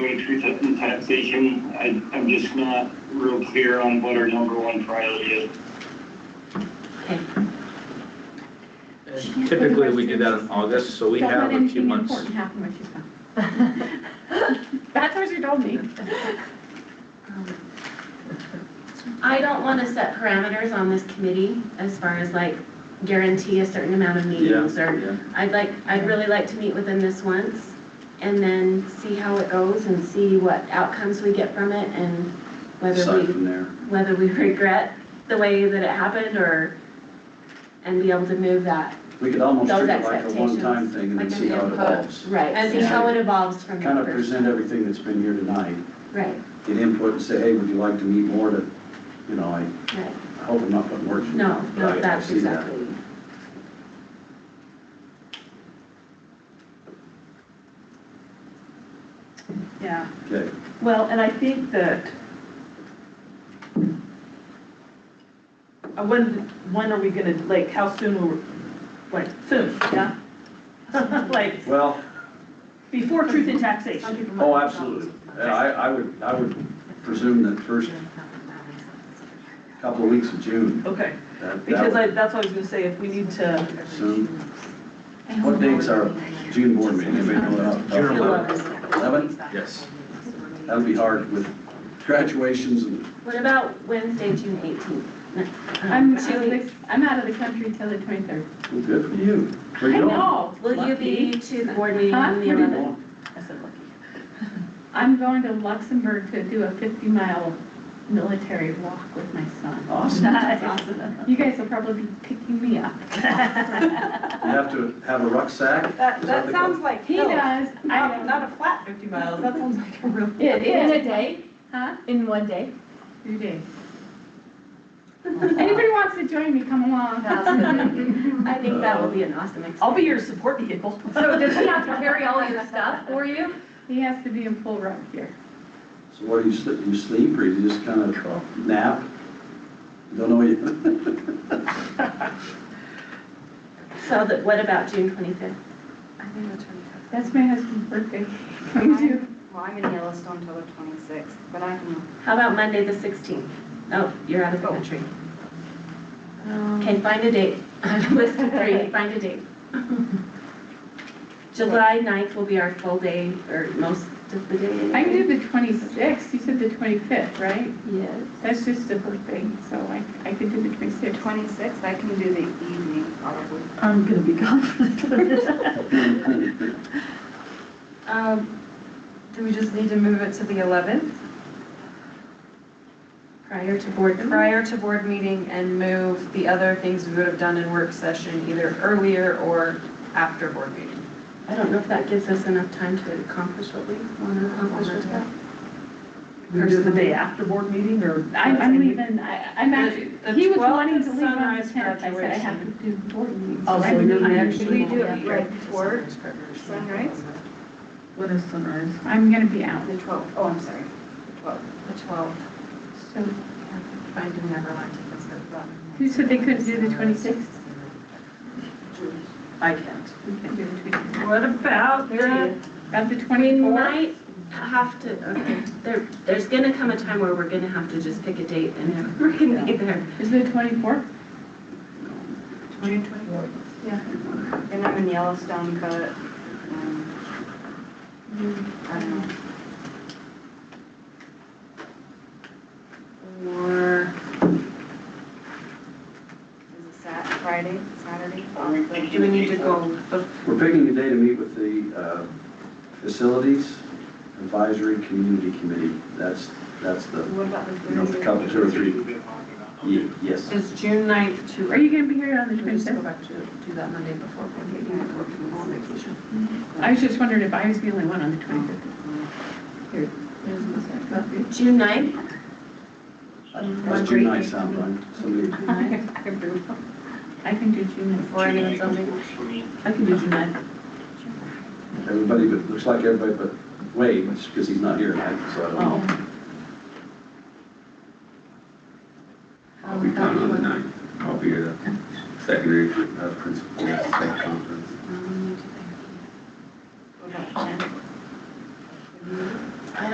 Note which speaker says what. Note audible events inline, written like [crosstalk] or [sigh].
Speaker 1: Way truth and taxation, I, I'm just not real clear on what our number one priority is.
Speaker 2: Typically, we do that in August, so we
Speaker 3: Don't let
Speaker 2: have a few
Speaker 3: anything
Speaker 2: months.
Speaker 3: important happen when she's
Speaker 4: [laughs]
Speaker 3: gone. That's what she told me.
Speaker 5: I don't want to set parameters on this committee as far as like guarantee a certain amount of meetings or
Speaker 2: Yeah.
Speaker 5: I'd like, I'd really like to meet with them this once and then see how it goes and see what outcomes we get from it and whether
Speaker 2: Aside
Speaker 5: we,
Speaker 2: from there.
Speaker 5: whether we [laughs] regret the way that it happened or, and be able to move that,
Speaker 2: We could almost
Speaker 5: Those
Speaker 2: treat it like a one-time
Speaker 5: expectations,
Speaker 2: thing and then
Speaker 3: like
Speaker 2: see
Speaker 3: an
Speaker 2: how it
Speaker 3: input.
Speaker 2: evolves.
Speaker 5: right, and see
Speaker 2: Yeah.
Speaker 5: how it evolves from
Speaker 2: Kind
Speaker 5: the
Speaker 2: of
Speaker 5: first.
Speaker 2: present everything that's been here tonight,
Speaker 5: Right,
Speaker 2: get input and say, hey, would you like to meet more to, you know, I
Speaker 5: right.
Speaker 2: I hope I'm not putting words in.
Speaker 5: No,
Speaker 2: your mouth,
Speaker 5: no,
Speaker 2: but I- I
Speaker 5: that's
Speaker 2: see that.
Speaker 5: exactly.
Speaker 3: Yeah.
Speaker 2: Okay,
Speaker 3: Well, and I think that uh, when, when are we gonna, like, how soon will, like, soon, yeah? [laughs] Like,
Speaker 2: well,
Speaker 3: before truth and taxation.
Speaker 2: oh, absolutely. Yeah, I, I would, I would presume that first couple of weeks of June.
Speaker 3: Okay,
Speaker 2: that- that
Speaker 3: because
Speaker 2: would
Speaker 3: I, that's what I was gonna say, if we need to,
Speaker 2: Soon. What date's our June board meeting? Anybody know that off the top
Speaker 6: June
Speaker 2: of their head?
Speaker 6: 11th.
Speaker 2: Eleven?
Speaker 6: Yes.
Speaker 2: That would be hard with graduations and
Speaker 5: What about Wednesday, June eighteenth?
Speaker 7: I'm out of the, I'm out of the country till the twenty-third.
Speaker 2: Well, Good for you. Where you going?
Speaker 5: Will you be to the board meeting
Speaker 7: Huh?
Speaker 5: on the
Speaker 7: Where do you
Speaker 5: eleventh?
Speaker 3: I said lucky. [laughs]
Speaker 7: I'm going to Luxembourg to do a fifty-mile military walk with my son.
Speaker 2: Awesome.
Speaker 7: That's
Speaker 4: [laughs]
Speaker 7: awesome. You guys will probably be picking me up.
Speaker 2: You have to have a rucksack?
Speaker 4: That,
Speaker 2: Is
Speaker 4: that
Speaker 2: the
Speaker 4: sounds like
Speaker 7: He
Speaker 4: hell.
Speaker 7: does, I
Speaker 4: Not,
Speaker 7: know.
Speaker 4: not a flat fifty miles, that sounds like a real.
Speaker 6: In, in a day,
Speaker 7: Huh?
Speaker 6: in one day.
Speaker 7: Your day. Anybody wants to join me, come along.
Speaker 5: I think that would be an awesome
Speaker 3: I'll
Speaker 5: experience.
Speaker 3: be your support vehicle.
Speaker 6: [laughs]
Speaker 4: [laughs]
Speaker 6: So does he have to carry all your stuff for you?
Speaker 7: He has to be in full rug here.
Speaker 2: So what, do you sleep, you sleep or you just kind of nap? Don't know you. [laughs]
Speaker 5: So that, what about June twenty-fifth?
Speaker 4: I think the twenty-fifth.
Speaker 7: That's my husband's birthday. [laughs] Come to.
Speaker 4: Well, I'm in Yellowstone till the twenty-sixth, but I can.
Speaker 5: How about Monday, the sixteenth? Oh, Um, you're out of the
Speaker 4: Oh.
Speaker 5: country. Okay, find a date. [laughs] On list of three, find a [laughs] date. July 9th will be our full day, or most of the day.
Speaker 7: I can do the twenty-sixth, you said the twenty-fifth, right?
Speaker 5: Yes.
Speaker 7: That's just a birthday, so I, I could do the
Speaker 4: The
Speaker 7: twenty-sixth.
Speaker 4: twenty-sixth, I can do the evening probably.
Speaker 3: I'm gonna be gone.
Speaker 4: Um, do we just need to move it to the eleventh,
Speaker 5: Prior to board,
Speaker 3: Mm-hmm.
Speaker 4: prior to board meeting and move the other things we would have done in work session either earlier or after board meeting?
Speaker 5: I don't know if that gives us enough time to accomplish what we want to accomplish with that.
Speaker 3: We do the day after board meeting or?
Speaker 7: I'm, I'm leaving, I, I'm actually,
Speaker 4: The- the
Speaker 7: he was
Speaker 4: 12th
Speaker 7: wanting
Speaker 4: is
Speaker 7: to leave on the
Speaker 4: sunrise
Speaker 7: tenth, I said I have to do board meetings.
Speaker 3: Oh,
Speaker 7: so I
Speaker 3: so you're
Speaker 7: leave.
Speaker 3: actually-
Speaker 4: We do it right before sunrise?
Speaker 3: When is sunrise?
Speaker 7: I'm gonna be out,
Speaker 4: The twelfth, oh, I'm sorry, the twelfth. The twelfth.
Speaker 7: so
Speaker 4: I do never like to consider that.
Speaker 7: who said they couldn't do the twenty-sixth?
Speaker 3: I can't.
Speaker 7: We can do the twenty-sixth.
Speaker 4: What about the?
Speaker 7: About the
Speaker 5: We
Speaker 7: twenty-fourth?
Speaker 5: might have to, okay, there, there's gonna come a time where we're gonna have to just pick a date and we're gonna be there.
Speaker 7: Is it the twenty-fourth?
Speaker 4: June twenty-fourth.
Speaker 7: Yeah.
Speaker 4: And I'm in Yellowstone, but, um, I don't know. Or, is it Sat, Friday, Saturday?
Speaker 5: Do we need to go, oh, bef-
Speaker 2: We're picking a day to meet with the uh, Facilities Advisory Community Committee. That's, that's the,
Speaker 4: What about the
Speaker 2: you know, the
Speaker 4: Thursday?
Speaker 2: couple, two or three. Ye- Yes.
Speaker 4: Is June ninth too
Speaker 7: Are you gonna be here on the
Speaker 4: Can we just go
Speaker 7: twenty-fifth?
Speaker 4: back to, do that Monday before, maybe, or can we go on vacation?
Speaker 7: I was just wondering if I was the only one on the twenty-fifth.
Speaker 5: June ninth?
Speaker 2: That's June night sound fine. Somebody,
Speaker 7: I can do June
Speaker 5: Or anyone something?
Speaker 3: I can do June ninth.
Speaker 2: everybody, but, looks like everybody but Wade, which, because he's not here tonight, so I don't know.
Speaker 5: How about you?
Speaker 2: I'll be here, secondary, uh, principal, second.